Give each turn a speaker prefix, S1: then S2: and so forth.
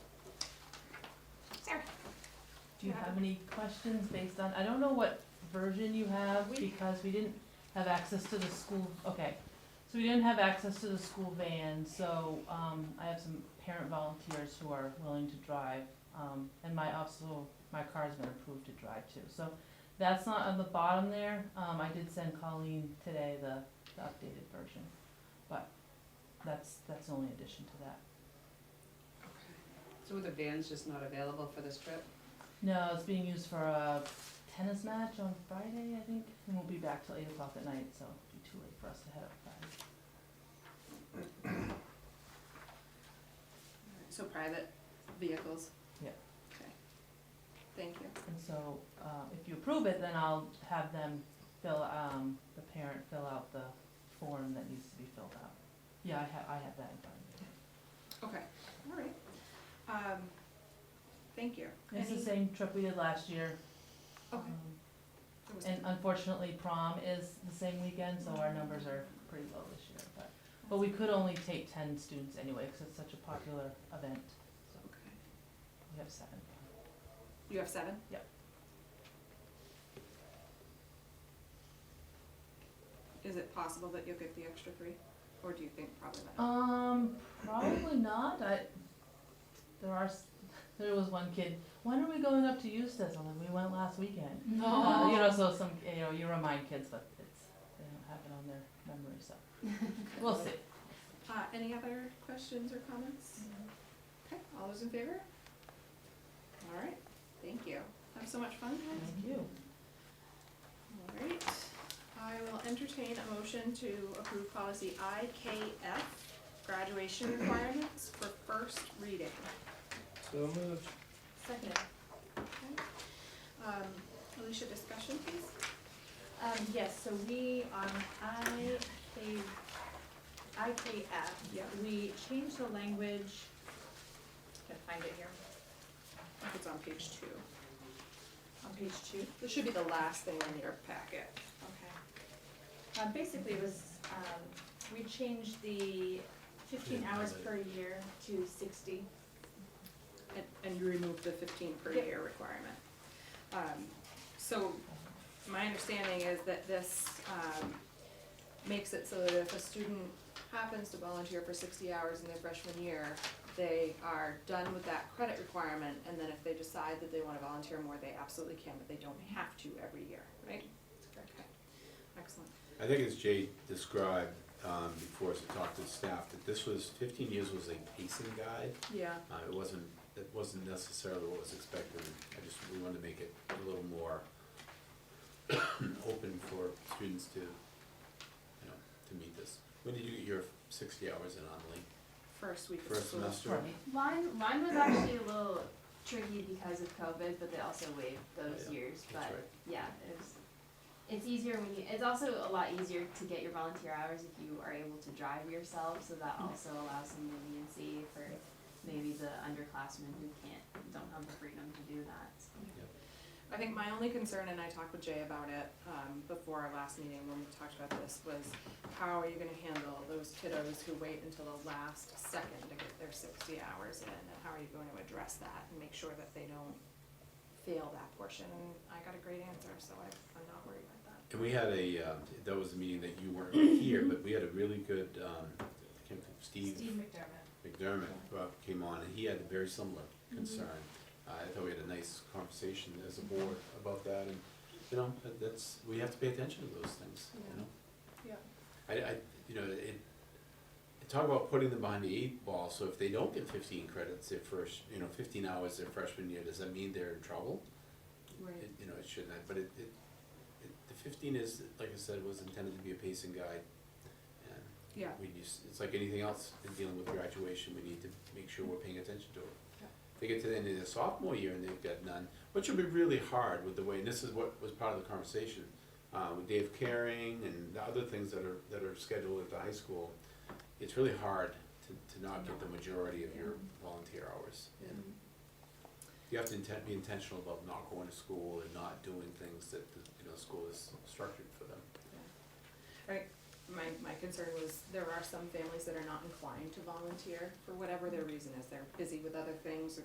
S1: Do you have any questions based on, I don't know what version you have,
S2: We-
S1: because we didn't have access to the school, okay. So we didn't have access to the school van, so, um, I have some parent volunteers who are willing to drive, um, and my also, my car's been approved to drive too, so that's not on the bottom there, um, I did send Colleen today the, the updated version, but that's, that's the only addition to that.
S2: So the van's just not available for this trip?
S1: No, it's being used for a tennis match on Friday, I think, and we'll be back till eight o'clock at night, so it'll be too late for us to head up Friday.
S2: So private vehicles?
S1: Yeah.
S2: Okay. Thank you.
S1: And so, uh, if you approve it, then I'll have them fill, um, the parent fill out the form that needs to be filled out. Yeah, I have, I have that in front of me.
S3: Okay, all right. Um, thank you.
S1: It's the
S3: Any-
S1: same trip we did last year.
S3: Okay.
S1: um,
S3: there was-
S1: And unfortunately, prom is the same weekend, so our numbers are pretty low this year, but, but we could only take ten students anyway, cause it's such a popular event, so
S3: Okay.
S1: we have seven.
S3: You have seven?
S1: Yep.
S3: Is it possible that you'll get the extra three, or do you think probably not?
S1: Um, probably not. I, there are, s- there was one kid, when are we going up to Eustis? I'm like, we went last weekend. Uh, you know, so some, you know, you remind kids, but it's, they don't have it on their memory, so. We'll see.
S3: Uh, any other questions or comments?
S1: Mm-hmm.
S3: Okay, all those in favor? All right, thank you. Have so much fun, guys.
S1: Thank you.
S3: All right, I will entertain a motion to approve policy IKF, graduation requirements for first reading.
S4: So moved.
S3: Second. Um, Alicia, discussion please?
S5: Um, yes, so we, on IK, IKF,
S3: Yeah.
S5: we changed the language, can I find it here,
S3: If it's on page two.
S5: on page two.
S3: This should be the last thing in your packet.
S5: Okay. Um, basically it was, um, we changed the fifteen hours per year to sixty.
S3: And, and you remove the fifteen per
S5: Yep.
S3: year requirement. Um, so, my understanding is that this, um, makes it so that if a student happens to volunteer for sixty hours in their freshman year, they are done with that credit requirement, and then if they decide that they wanna volunteer more, they absolutely can, but they don't have to every year, right? Okay, excellent.
S6: I think as Jay described, um, before as he talked to staff, that this was, fifteen years was a pacing guide.
S3: Yeah.
S6: Uh, it wasn't, it wasn't necessarily what was expected, I just, we wanted to make it a little more open for students to, you know, to meet this. When did you get your sixty hours in Emily?
S3: First week of
S6: First
S3: school.
S6: semester?
S7: Mine, mine was actually a little tricky because of COVID, but they also waived those
S6: Yeah,
S7: years.
S6: that's
S7: But
S6: right.
S7: yeah, it was. It's easier when you. It's also a lot easier to get your volunteer hours if you are able to drive yourself. So that
S6: Mm-hmm.
S7: also allows some leniency for maybe the underclassmen who can't don't have the freedom to do that. So.
S3: I think my only concern, and I talked with Jay about it, um, before our last meeting when we talked about this, was how are you gonna handle those kiddos who wait until the last second to get their sixty hours in, and how are you going to address that and make sure that they don't fail that portion? And I got a great answer, so I, I'm not worried about that.
S6: And we had a, um, that was a meeting that you weren't here, but we had a really good, um, I can't think-
S7: Steve McDermott.
S6: McDermott uh, came on, and he had a very similar concern. Uh, I thought we had a nice conversation as a board about that, and, you know, that- that's, we have to pay attention to those things, you know?
S3: Yeah.
S6: I, I, you know, it, it talk about putting them behind the eight ball, so if they don't get fifteen credits their first, you know, fifteen hours their freshman year, does that mean they're in trouble?
S3: Right.
S6: It, you know, it shouldn't, have, but it, it, it, the fifteen is, like I said, was intended to be a pacing guide, and
S3: Yeah,
S6: we just, it's like anything else in dealing with graduation, we need to make sure we're paying attention to it.
S3: Yeah.
S6: If They get to the end of their sophomore year and they've got none, which would be really hard with the way, and this is what was part of the conversation, uh, with Dave Caring and the other things that are, that are scheduled at the high school. It's really hard to, to not get the majority of your volunteer hours. And You have to inten- be intentional about not going to school and not doing things that, the, you know, school is structured for them.
S3: my, my concern was there are some families that are not inclined to volunteer for whatever their reason is. They're busy with other things or